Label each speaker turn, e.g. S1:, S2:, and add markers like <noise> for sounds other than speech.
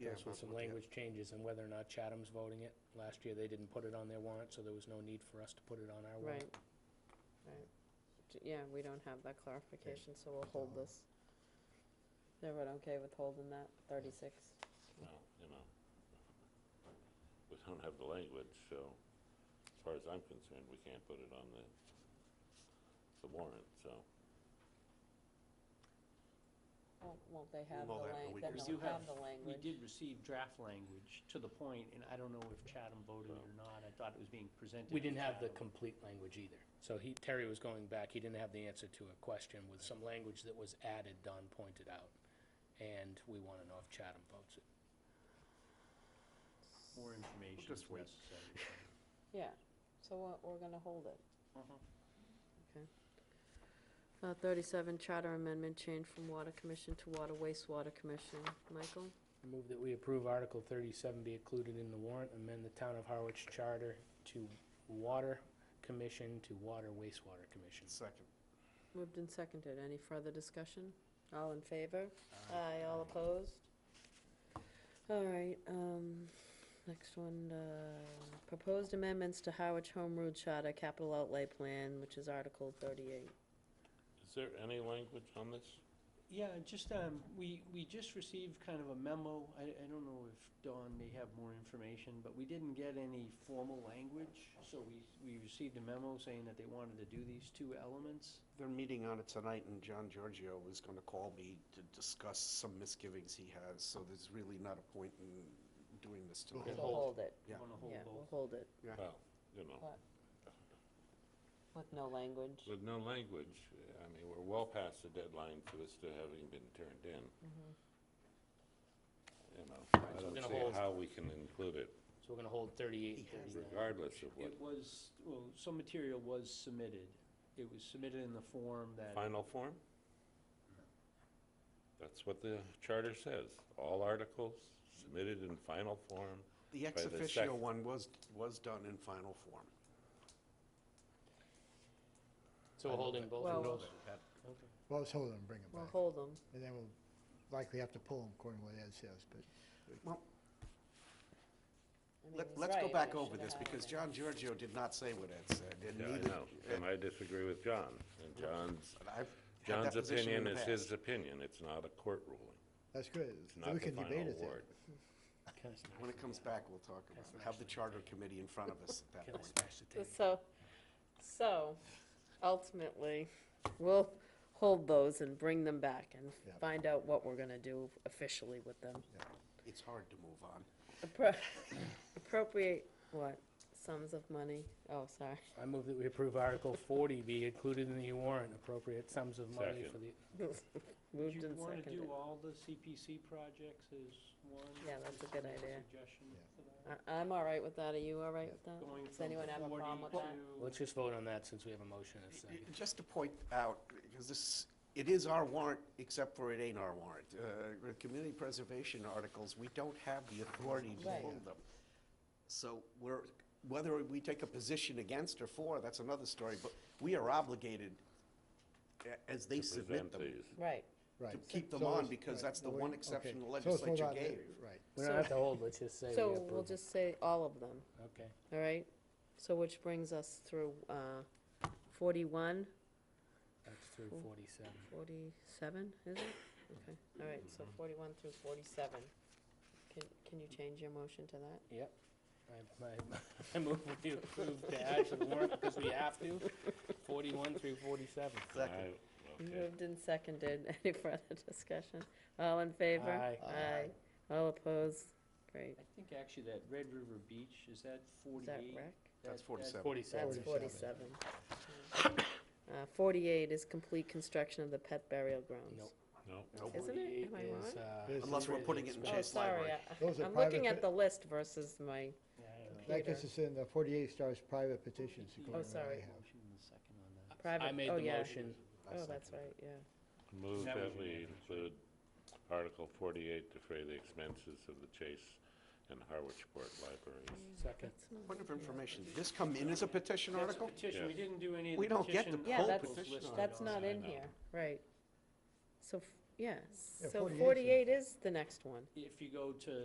S1: articles with some language changes and whether or not Chatham's voting it. Last year, they didn't put it on their warrant, so there was no need for us to put it on our
S2: Right,
S1: warrant.
S2: right. J- Yeah, we don't have that clarification, so we'll hold
S3: Hold.
S2: this. Is everyone okay with holding that, thirty-six?
S4: Well, you know, we don't have the language, so as far as I'm concerned, we can't put it on the, the warrant, so.
S2: Won't, won't they have the
S3: We'll have a
S2: lang,
S3: week
S2: then
S3: or
S1: so.
S2: they'll
S1: We do
S2: have
S1: have-
S2: the
S5: We
S2: language?
S5: did receive draft language to the point, and I don't know if Chatham voted it or not. I thought it was being presented.
S1: We
S5: at
S1: didn't have the
S5: Chatham.
S1: complete language either. So he, Terry was going back, he didn't have the answer to a question with some language that was added, Don pointed out. And we want to know if Chatham votes it.
S5: More information is
S3: just wait.
S5: necessary.
S2: Yeah, so we're, we're gonna hold it.
S5: Mhm.
S2: Uh, thirty-seven, charter amendment change from water commission to water wastewater commission. Michael?
S1: Move that we approve Article 37 be included in the warrant, amend the Town of Harwich Charter to Water Commission to Water Wastewater Commission.
S3: Second.
S2: Moved and seconded. Any further discussion? All in favor? Aye,
S5: Um,
S2: all opposed? All right, um, next one, uh, proposed amendments to Howard Home Rule Charter Capital Outlay Plan, which is Article thirty-eight.
S4: Is there any language on this?
S5: Yeah, just, um, we, we just received kind of a memo. I, I don't know if Dawn may have more information, but we didn't get any formal language. So we, we received a memo saying that they wanted to do these two elements.
S3: They're meeting on it tonight, and John Giorgio was going to call me to discuss some misgivings he has, so there's really not a point in doing this
S2: We'll
S3: tonight.
S4: hold.
S2: hold it.
S3: Yeah.
S5: Want to
S2: Yeah,
S5: hold
S2: we'll
S5: both.
S2: hold it.
S3: Yeah.
S4: Well, you know,
S2: With no language.
S4: with no language, I mean, we're well past the deadline for this to having been turned in. You know,
S1: so
S4: I
S1: we're
S4: don't
S1: gonna hold-
S4: see how we can include it
S1: So we're going to hold 38,
S3: He has
S1: 39.
S4: regardless of what
S5: It was, well, some material was submitted. It was submitted in the form that.
S4: Final form? That's what the charter says. All articles submitted in final form.
S3: The ex
S4: By the
S3: officio
S4: sec-
S3: one was, was done in final form.
S1: So we're holding both
S2: Well-
S1: of those?
S5: Okay.
S6: Well, let's hold them, bring them
S2: We'll
S6: back.
S2: hold them.
S6: And then we'll likely have to pull them according to what Ed says, but
S3: Let- Let's go back over this, because John Giorgio did not say what Ed said, and
S4: Yeah, I
S3: neither.
S4: know, and I disagree with John. And John's,
S3: but I've had that
S4: John's
S3: position in
S4: opinion
S3: the
S4: is
S3: past.
S4: his opinion. It's not a court ruling.
S6: that's good.
S4: It's
S6: Then
S4: not
S6: we
S4: the
S6: can debate
S4: final
S6: it then.
S4: word.
S3: When it comes back, we'll talk about it. Have the charter committee in front of us at that
S1: Can I
S3: point.
S1: smash the table?
S2: So, so ultimately, we'll hold those and bring them back and
S6: Yeah.
S2: find out what we're gonna do officially with them.
S3: It's hard to move on.
S2: Appro- <laughs> Appropriate, what, sums of money? Oh, sorry. <laughs>
S1: I move that we approve Article 40 be included in the warrant, appropriate sums of money
S4: Second.
S1: for the,
S5: Would
S2: Moved
S5: you
S2: and
S5: want to
S2: seconded.
S5: do all the CPC projects as one?
S2: Yeah, that's a good
S5: Just
S2: idea.
S5: Suggestion
S6: Yeah.
S5: for that?
S2: I- I'm all right with that. Are you all right with that?
S5: Going
S2: Uh, Does
S5: from
S2: anyone have a
S5: 40
S2: problem with
S5: to-
S2: that?
S1: let's just vote on that since we have a motion and a
S3: Y-
S1: second.
S3: Just to point out, because this, it is our warrant, except for it ain't our warrant. Uh, the Community preservation articles, we don't have the authority to
S2: Right.
S3: hold them. So we're, whether we take a position against or for, that's another story, but we are obligated a- as they
S4: to present
S3: submit them,
S4: these.
S2: Right.
S6: Right.
S3: to keep them
S6: So
S3: on,
S6: let's-
S3: because
S6: right,
S3: that's the
S6: well, we-
S3: one exception the
S6: okay. So let's hold
S3: legislature
S6: on to-
S3: gave.
S6: Right.
S1: We don't
S2: So-
S1: have to hold, let's just say we approve.
S2: So we'll
S1: it.
S2: just say all of them,
S1: Okay.
S2: all right? So which brings us through uh, 41,
S1: That's through 47.
S2: 47, is it? Okay, all right, so 41 through 47. Can Can you change your motion to that?
S1: Yep. I, <laughs> I, I move we approve to add to the warrant because we have to, 41 through 47.
S3: Second.
S4: I- okay.
S2: Moved and seconded. <laughs> Any further discussion? All in favor?
S1: Aye.
S2: Aye. All opposed? Great.
S5: I think actually that Red River Beach, is that
S2: Is that
S5: 48?
S2: rec?
S3: That's
S5: That-
S3: 47.
S1: 47.
S2: That's 47.
S6: 47.
S2: Uh, 48 is complete construction of the pet burial grounds.
S1: Nope.
S4: No,
S3: Nope.
S2: Isn't it? Am I
S1: 48
S2: wrong?
S1: is, uh,
S6: This is
S3: Unless we're putting it in
S2: Oh,
S1: expense.
S3: Chase
S2: sorry,
S3: Library.
S6: Those
S2: I-
S6: are
S2: I'm looking
S6: private
S2: at
S6: pet-
S2: the list versus my,
S5: Yeah, I don't know.
S6: That gets
S2: Peter.
S6: us in, the forty-eight stars
S2: <laughs>
S6: private petitions, according to what I
S2: Oh, sorry.
S6: have.
S5: Motion and a second on that.
S2: private-
S1: I made
S2: oh,
S1: the
S2: yeah.
S1: motion.
S2: oh, that's right, yeah.
S4: move
S5: That was
S4: that we
S5: unanimous, right?
S4: include Article 48 to defray the expenses of the Chase and Harwich Port Libraries.
S1: Second.
S2: That's not-
S3: Point of information, did this come in as a petition
S5: That's a
S3: article?
S5: petition, we
S4: Yeah.
S5: didn't do any of the
S3: We don't get
S5: petition
S3: to
S2: Yeah,
S3: poll
S2: that's-
S5: articles
S3: petition
S5: listed
S2: That's
S5: on
S2: not
S5: there.
S2: in
S4: no.
S2: here, right. So, f- yeah,
S6: Yeah,
S2: so
S6: 48 's in
S2: 48 is the next one.
S5: If you go to